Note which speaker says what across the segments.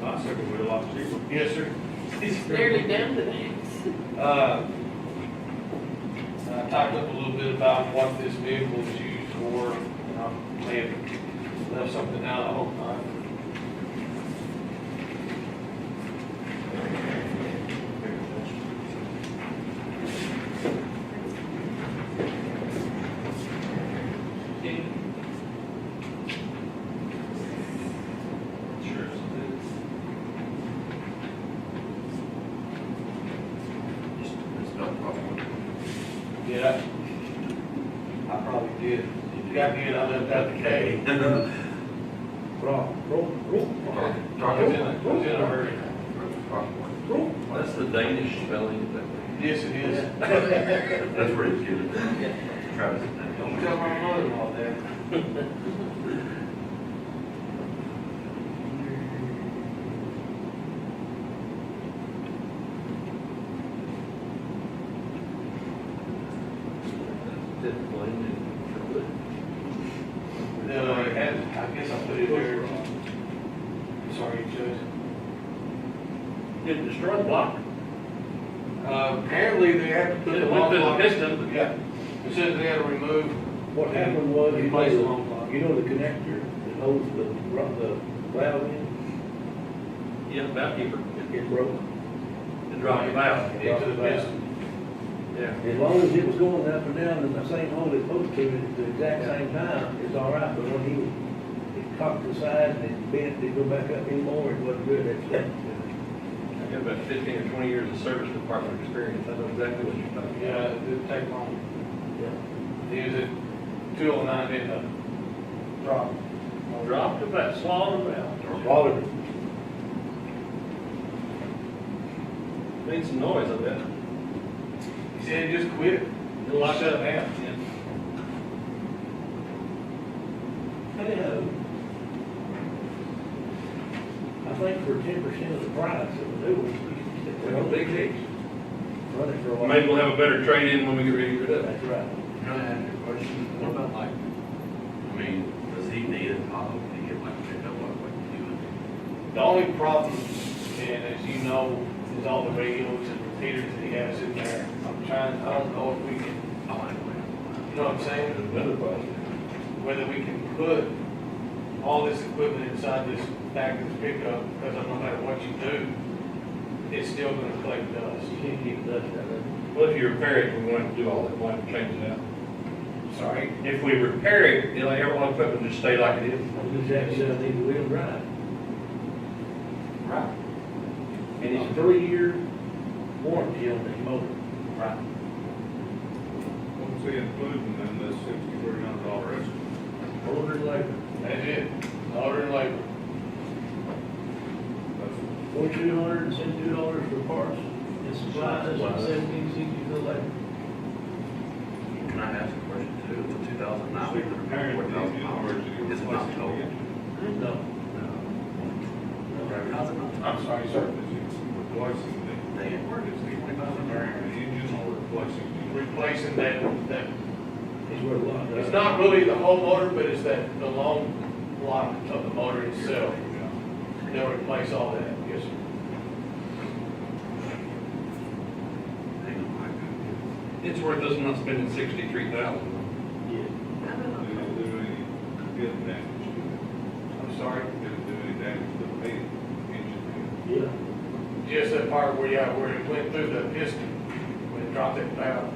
Speaker 1: My second wheel off too. Yes, sir.
Speaker 2: It's nearly done today.
Speaker 3: Uh, I talked up a little bit about what this vehicle is used for, and I may have left something out, I hope not. Sure.
Speaker 4: It's not problem.
Speaker 3: Did I? I probably did. If you got me, in, I left out the K.
Speaker 1: Roll, roll, roll.
Speaker 3: I was in a, I was in a hurry.
Speaker 1: Roll.
Speaker 4: That's the Danish spelling, that-
Speaker 3: Yes, it is.
Speaker 4: that's where it's given. Travis.
Speaker 3: Don't tell my mother-in-law that. No, I had, I guess I put it there. Sorry, Judge.
Speaker 5: It destroyed the block.
Speaker 3: Uh, apparently they had to put
Speaker 5: It
Speaker 3: the
Speaker 5: went
Speaker 3: long
Speaker 5: through the
Speaker 3: block.
Speaker 5: piston.
Speaker 3: Yeah, it says they had to remove.
Speaker 1: What happened was, you
Speaker 3: Replace the long
Speaker 1: know,
Speaker 3: block.
Speaker 1: you know the connector that holds the, ru- the valve in,
Speaker 5: Yeah, about keeper.
Speaker 1: it broke.
Speaker 5: It dropped him out.
Speaker 3: Into the piston.
Speaker 5: Yeah.
Speaker 1: As long as it was going up and down in the same hole it's supposed to, at the exact same time, it's all right, but when he, it cocked the side and it bent, it go back up anymore, it wasn't good, that's,
Speaker 5: I got about fifteen or twenty years of service department experience. I know exactly what you're talking about.
Speaker 3: Yeah, it didn't take long.
Speaker 1: yeah.
Speaker 3: They used it, two oh nine in the drop.
Speaker 5: Dropped him out, swallowed him out.
Speaker 1: Water,
Speaker 5: Made some noise, I bet.
Speaker 3: He said it just quit.
Speaker 5: It locked
Speaker 3: Shut
Speaker 5: up.
Speaker 3: down.
Speaker 1: hello. I think for ten percent of the price of the new ones, you
Speaker 5: Well,
Speaker 1: can
Speaker 5: big case.
Speaker 1: run it for a while.
Speaker 5: Maybe we'll have a better trade-in when we get ready for that.
Speaker 1: That's right.
Speaker 5: What about like?
Speaker 4: I mean, does he need a Tahoe to get like picked up like what you do?
Speaker 3: The only problem, and as you know, is all the radios and repeaters that he has in there. I'm trying, I don't know if we can,
Speaker 4: Oh, anyway.
Speaker 3: you know what I'm saying?
Speaker 5: Another project.
Speaker 3: whether we can put all this equipment inside this back of this pickup, because no matter what you do, it's still gonna collect dust.
Speaker 1: You can't keep dust out of it.
Speaker 5: Well, if you repair it, we want to do all that, why not change it out?
Speaker 3: Sorry.
Speaker 5: If we repair it, it'll, everyone equipment just stay like it is.
Speaker 1: I'm just happy that I need the wheel drive.
Speaker 3: Right.
Speaker 1: And it's three-year warranty on this motor.
Speaker 3: Right.
Speaker 6: Once we include them in the sixty-three hundred dollar estimate.
Speaker 1: Older than labor.
Speaker 3: That's it, order and labor.
Speaker 1: Forty-two hundred and seventy-two dollars for parts and supplies and
Speaker 4: Supplies.
Speaker 1: seventeen sixty for labor.
Speaker 4: Can I ask a question too? It's a two thousand
Speaker 6: So
Speaker 4: nine.
Speaker 6: you're comparing it to the new cars that you're
Speaker 4: It's not
Speaker 6: replacing
Speaker 4: Tahoe.
Speaker 6: again.
Speaker 1: No. No.
Speaker 4: How's it not Tahoe?
Speaker 3: I'm sorry, sir.
Speaker 6: Because you're Replacing the,
Speaker 4: They ain't working,
Speaker 6: it's comparing the engine or replacing the.
Speaker 3: Replacing that, that,
Speaker 1: It's worth a lot.
Speaker 3: it's not really the whole motor, but it's that, the long block of the motor itself. They'll replace all that, yes, sir.
Speaker 4: They don't like it.
Speaker 5: It's worth us not spending sixty-three thousand.
Speaker 1: Yeah.
Speaker 6: Did it do any, did damage to
Speaker 3: I'm sorry.
Speaker 6: it? Did it do any damage to the main engine?
Speaker 1: Yeah.
Speaker 3: Just that part where, yeah, where it went through the piston, when it dropped that valve.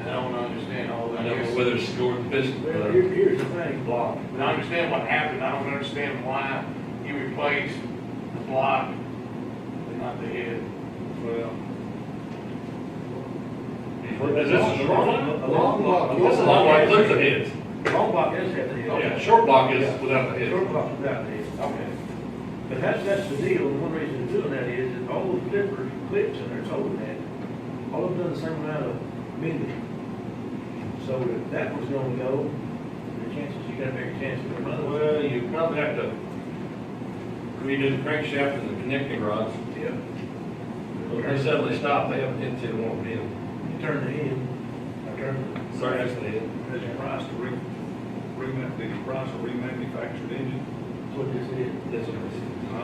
Speaker 3: And I don't understand all that.
Speaker 5: I don't know whether it's scored this,
Speaker 1: Well, here, here's the thing, Bob.
Speaker 3: And I understand what happened, I don't understand why you replaced the block and not the head.
Speaker 6: Well,
Speaker 5: Is this a short one?
Speaker 1: A long block.
Speaker 5: This is long block, look at the heads.
Speaker 1: Long block is at the
Speaker 5: Yeah,
Speaker 1: head.
Speaker 5: short block is without the head.
Speaker 1: Short block is out there.
Speaker 3: Okay.
Speaker 1: But that's, that's the deal, and one reason they're doing that is that all the clippers, clips in there's holding that, all of them done the same amount of bending. So if that was gonna go, the chances, you got a bigger chance of another.
Speaker 5: Well, you probably have to redo the crankshaft and the connecting rods.
Speaker 3: Yeah.
Speaker 5: When they suddenly stop, they haven't hit it, won't be in.
Speaker 1: You turn the end, I turn
Speaker 5: Sorry, that's the head.
Speaker 6: is the price to re, reman, the price of remanufactured engine?
Speaker 1: the, what this is.
Speaker 5: That's what I said.